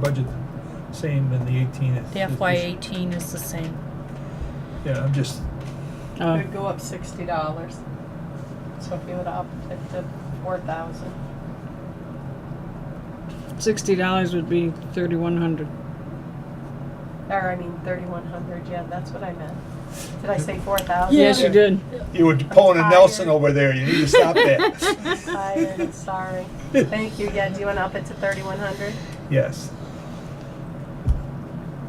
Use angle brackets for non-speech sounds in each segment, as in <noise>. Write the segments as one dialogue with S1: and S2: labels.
S1: budget same in the eighteen. it's-
S2: The
S1: it's-
S2: FY eighteen is the same.
S1: Yeah, I'm just,
S3: It
S4: Oh,
S3: would go up sixty dollars. So if you would up it to four thousand.
S4: sixty dollars would be thirty-one hundred.
S3: Or I mean thirty-one hundred, yeah, that's what I meant. Did I say four thousand?
S4: Yes, you did.
S5: You were pulling a
S3: Tired.
S5: Nelson over there. You need to stop that.
S4: <laughs>
S3: Tired, I'm sorry. Thank you, yeah, do you wanna up it to thirty-one hundred?
S1: yes.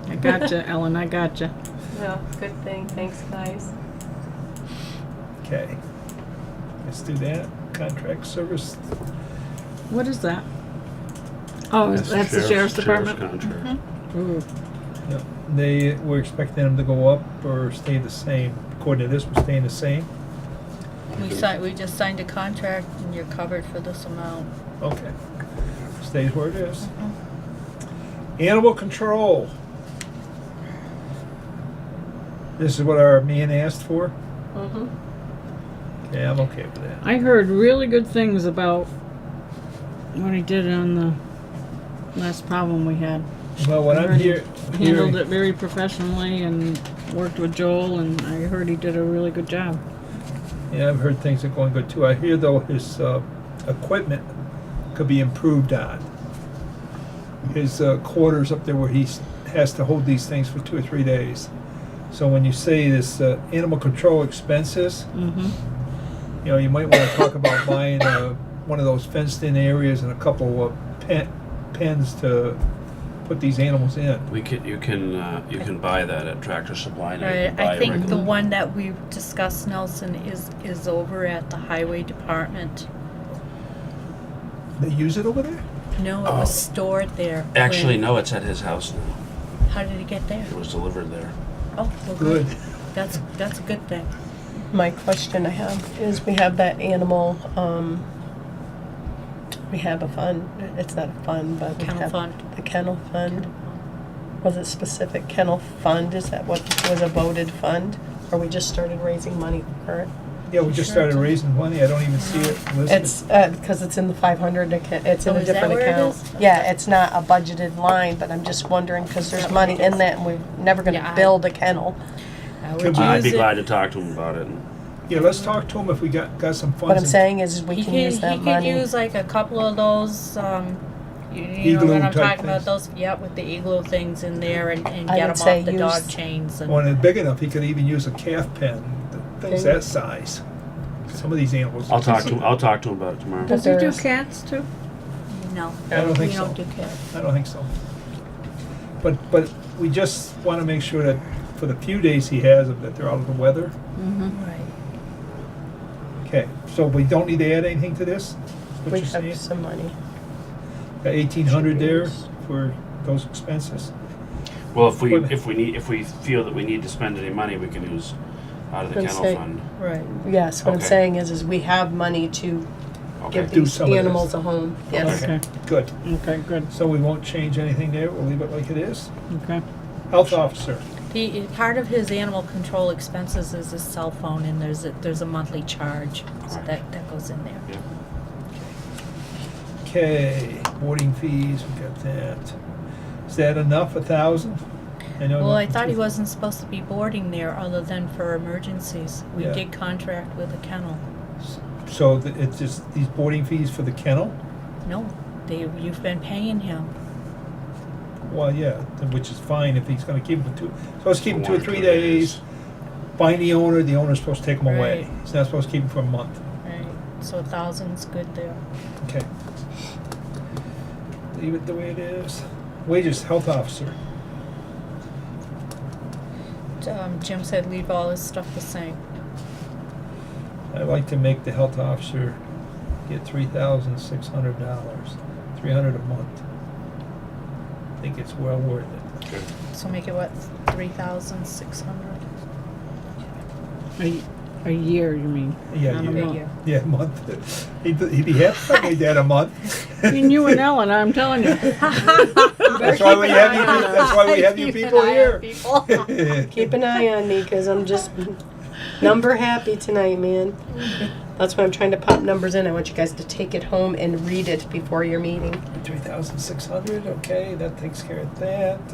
S4: I gotcha, Ellen, I gotcha.
S3: No, good thing, thanks guys.
S1: Okay. Let's do that. Contract service,
S4: What is that? Oh, is- that's the sheriff's department?
S6: contract.
S4: Ooh,
S1: no, they, we're expecting them to go up or stay the same. According to this, we're staying the same.
S2: We signed, we just signed a contract and you're covered for this amount.
S1: Okay. Stays where it is. Animal control. This is what our man asked for?
S3: Mm-hmm.
S1: Yeah, I'm okay with that.
S4: I heard really good things about what he did on the last problem we had.
S1: Well, what I'm
S4: Already
S1: hear-
S4: Handled
S1: hearing,
S4: it very professionally and worked with Joel and I heard he did a really good job.
S1: yeah, I've heard things are going good too. I hear though his, uh, equipment could be improved on. His, uh, quarters up there where he's, has to hold these things for two or three days. So when you say this, uh, animal control expenses,
S4: Mm-hmm.
S1: you know, you might wanna talk about buying, uh, one of those fenced-in areas and a couple of pen, pens to put these animals in.
S6: We can, you can, uh, you can buy that at Tractor Supply now. You
S2: Right,
S6: can buy
S2: I
S6: a
S2: think the
S6: regular-
S2: one that we discussed, Nelson, is, is over at the highway department.
S1: They use it over there?
S2: No, it
S6: Oh.
S2: was stored there. when-
S6: Actually, no, it's at his house now.
S2: How did it get there?
S6: It was delivered there.
S2: Oh, well,
S1: Good.
S2: good. That's, that's a good thing.
S3: My question I have is we have that animal, um, we have a fund, it's not a fund, but we
S2: Kennel
S3: have
S2: fund.
S3: the kennel fund. Was it specific kennel fund? Is that what was a voted fund? Or we just started raising money for it?
S1: Yeah, we just
S2: Sure.
S1: started raising money. I don't even see it listed.
S3: It's, uh, cause it's in the five hundred, it's in
S2: Oh,
S3: a
S2: is that
S3: different
S2: where it
S3: account.
S2: is?
S3: Yeah, it's not a budgeted line, but I'm just wondering, cause there's money in that and we're never
S2: Yeah,
S3: gonna
S2: I-
S3: build a kennel.
S2: I would
S1: Could we-
S6: I'd be
S2: use it.
S6: glad to talk to him about it.
S1: Yeah, let's talk to him if we got, got some funds.
S3: What I'm
S1: in-
S3: saying is we
S2: He
S3: can
S2: could-
S3: use that
S2: He could
S3: money.
S2: use like a couple of those, um, you- you know
S1: Igloo
S2: what I'm
S1: type
S2: talking about,
S1: things.
S2: those, yeah, with the igloo things in there and, and
S3: I
S2: get them
S3: would say
S2: off the
S3: use-
S2: dog chains and.
S1: When it's big enough, he could even use a calf pen, th- things
S3: Thing.
S1: that size. Some of these animals.
S6: I'll talk to him, I'll talk to him about it tomorrow.
S4: Does he do
S3: There's-
S4: cats too?
S2: No.
S1: I don't think
S2: we
S1: so.
S2: don't do cats.
S1: I don't think so. But, but we just want to make sure that for the few days he has them, that they're out of the weather.
S2: Right.
S1: Okay, so we don't need to add anything to this? What
S3: We
S1: you're saying?
S3: have some money.
S1: Got eighteen hundred there for those expenses?
S6: Well, if we,
S1: Equipment.
S6: if we need, if we feel that we need to spend any money, we can use out of the
S3: Gonna
S6: kennel
S3: say-
S6: fund.
S2: Right.
S3: Yes, what I'm
S6: Okay.
S3: saying is, is we have money to
S6: Okay,
S3: give
S1: Do
S3: these
S1: some of this.
S3: animals a home. Yes.
S4: Okay,
S1: Good.
S4: okay, good,
S1: So we won't change anything there, we'll leave it like it is?
S4: okay.
S1: Health officer,
S2: He, part of his animal control expenses is his cell phone and there's a, there's a monthly charge. So
S6: Alright.
S2: that, that goes in there.
S1: okay, boarding fees, we got that. Is that enough, a thousand?
S2: Well, I thought he wasn't supposed to be boarding there other than for emergencies. We
S1: Yeah.
S2: did contract with a kennel.
S1: So th- it's just these boarding fees for the kennel?
S2: No, they, you've been paying him.
S1: Well, yeah, th- which is fine if he's gonna keep them for two, so let's keep them two or
S6: One or
S1: three
S6: two
S1: days. Find the owner, the owner's supposed to take them away.
S2: Right.
S1: He's not supposed to keep them for a month.
S2: Right. So a thousand's good there.
S1: Okay. Leave it the way it is. Wages, health officer.
S2: Um, Jim said leave all his stuff the same.
S1: I'd like to make the health officer get three thousand six hundred dollars, three hundred a month. I think it's well worth it.
S6: okay.
S2: So make it what, three thousand six hundred?
S4: A, a year, you mean?
S1: Yeah,
S4: Not a
S1: you-
S4: month.
S1: Yeah, a month. <laughs> He'd, he'd be happy if I made that a <laughs> month.
S4: Between you and Ellen, I'm telling <laughs> you.
S1: That's why we have <laughs> you, that's why we have you people here. <laughs>
S3: Keep an eye on me, cause I'm just
S7: Number happy tonight, man. That's why I'm trying to pop numbers in. I want you guys to take it home and read it before your meeting.
S1: Three thousand six hundred, okay, that takes care of that.